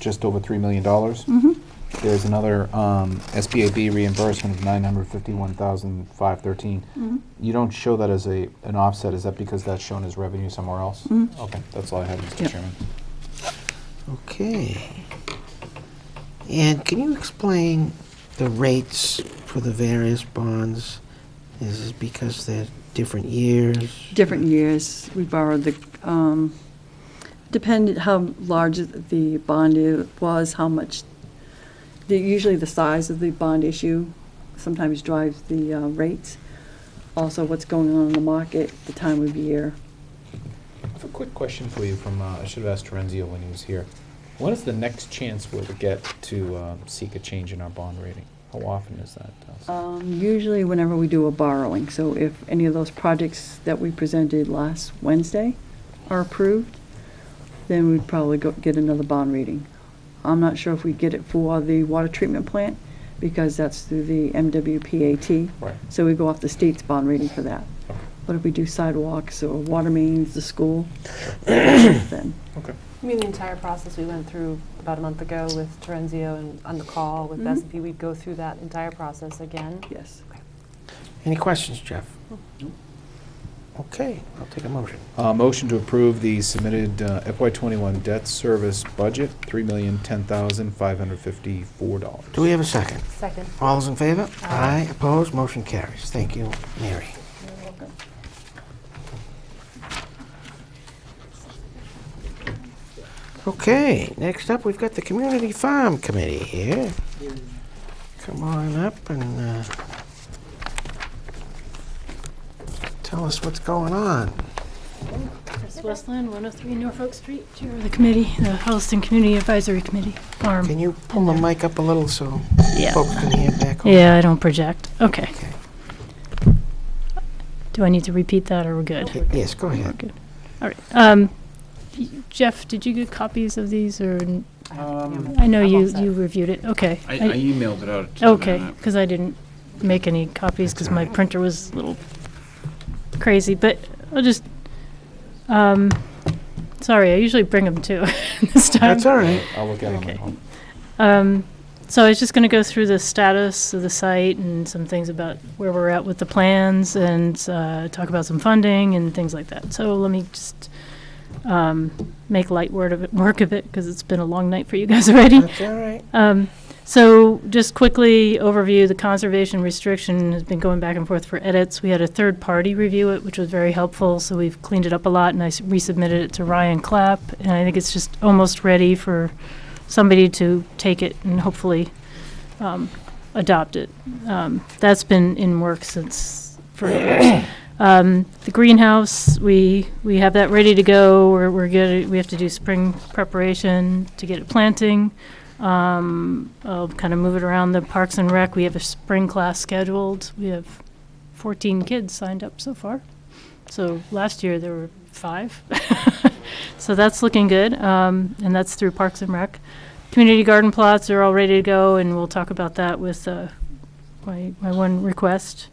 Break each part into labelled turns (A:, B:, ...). A: just over $3 million. There's another um, SBAB reimbursement of $951,513. You don't show that as a, an offset, is that because that's shown as revenue somewhere else? Okay, that's all I had, Mr.
B: Yep.
A: Chairman.
C: Okay. And can you explain the rates for the various bonds? Is it because they're different years?
B: Different years, we borrowed the, um, depended how large the bond i- was, how much, the- usually the size of the bond issue sometimes drives the uh, rates. Also, what's going on in the market, the time of year.
A: I have a quick question for you from, uh, I should have asked Terenzio when he was here. When is the next chance we'll get to uh, seek a change in our bond rating? How often is that? Dustin?
B: Um, Usually whenever we do a borrowing, so if any of those projects that we presented last Wednesday are approved, then we'd probably go, get another bond reading. I'm not sure if we get it for the water treatment plant, because that's through the MWPAT.
A: Right.
B: So we go off the state's bond rating for that.
A: Okay.
B: But if we do sidewalks or water mains, the school, then,
A: Okay.
D: I mean, the entire process we went through about a month ago with Terenzio and on the call with
B: Mhm.
E: Mm-hmm.
D: S and P, we'd go through that entire process again.
B: yes.
C: Any questions, Jeff? Okay, I'll take a motion.
A: Uh, Motion to approve the submitted uh, FY21 debt service budget, $3,010,554.
C: Do we have a second?
D: Second.
C: All those in favor? Aye,
D: Aye.
C: opposed, motion carries. Thank you, Mary. Okay, next up, we've got the Community Farm Committee here. Come on up and uh, tell us what's going on.
E: Chris Westland, 103 Norfolk Street, Chair of the committee, the Holliston Community Advisory Committee,
C: Can
E: farm.
C: you pull the mic up a little so
E: Yeah,
C: folks can hear back? on?
E: yeah, I don't project. Okay.
C: Okay.
E: Do I need to repeat that, or we're good?
C: Yes, go ahead.
E: All right. Um, y- Jeff, did you get copies of these, or, n- I know
D: I'm all
E: you,
D: set.
E: you reviewed it, okay.
F: I, I
E: I-
F: emailed it out. to
E: Okay,
F: them.
E: because I didn't make any copies
C: That's
E: because
C: all
E: my
C: right.
E: printer was a little crazy, but I'll just, um, sorry, I usually bring them too this time.
C: That's all right.
A: I'll look at them at
E: Okay.
A: home.
E: Um, so I was just going to go through the status of the site and some things about where we're at with the plans and uh, talk about some funding and things like that. So let me just um, make light word of it, work of it because it's been a long night for you guys already.
C: That's all right.
E: Um, so just quickly overview, the conservation restriction has been going back and forth for edits. We had a third party review it, which was very helpful, so we've cleaned it up a lot and I s- resubmitted it to Ryan Clapp. And I think it's just almost ready for somebody to take it and hopefully, um, adopt it. Um, that's been in work since forever. Um, the greenhouse, we, we have that ready to go. We're, we're good. We have to do spring preparation to get it planting. Um, I'll kind of move it around the Parks and Rec. We have a spring class scheduled. We have 14 kids signed up so far. So last year there were five. so that's looking good, um, and that's through Parks and Rec. Community garden plots are all ready to go, and we'll talk about that with uh, my, my one request.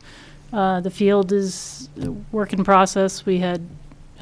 E: Uh, the field is a work in process. We had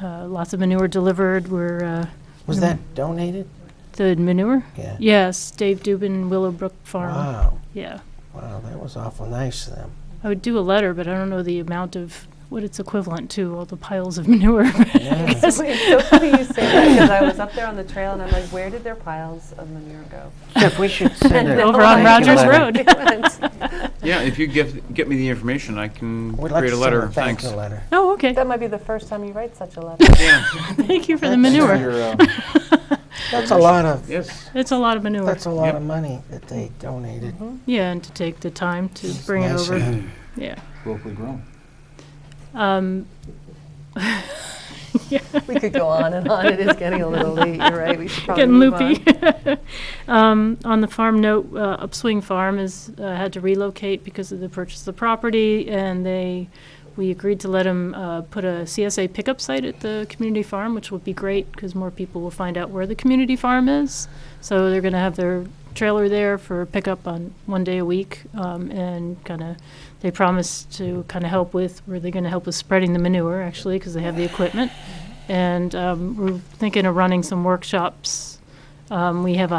E: uh, lots of manure delivered. We're uh,
C: Was that donated?
E: the manure.
C: Yeah.
E: Yes, Dave Dubin, Willowbrook Farm.
C: Wow,
E: Yeah.
C: wow, that was awful nice of them.
E: I would do a letter, but I don't know the amount of what it's equivalent to, all the piles of manure.
C: Yeah.
D: It's so funny you say that because I was up there on the trail and I'm like, where did their piles of manure go?
C: Jeff, we should send a.
E: Over on
C: thank you
E: Rogers
C: letter.
E: Road.
F: Yeah, if you get, get me the information, I can
C: We'd like
F: create
C: to send
F: a letter,
C: thank
F: thanks.
C: you letter.
E: Oh, okay.
D: That might be the first time you write such a letter.
F: Yeah,
E: Thank you for the
C: That's-
A: For
E: manure.
A: your, um,
C: That's a lot of,
F: yes.
E: It's a lot of manure.
C: that's a lot
F: Yep.
C: of money that they donated.
E: Yeah, and to take the time to
C: It's
E: bring it
C: nice of
E: over.
C: them.
E: Yeah.
A: Locally grown.
E: Um,
D: We could go on and on. It is getting a little late. You're right. We should probably
E: getting
D: move on.
E: loopy. um, on the farm note, uh, Upswing Farm is uh, had to relocate because of the purchase of the property, and they we agreed to let them uh, put a CSA pickup site at the community farm, which would be great because more people will find out where the community farm is. So they're going to have their trailer there for pickup on one day a week, um, and kind of they promised to kind of help with where they're going to help with spreading the manure actually because they have the equipment. And um, we're thinking of running some workshops um, we have a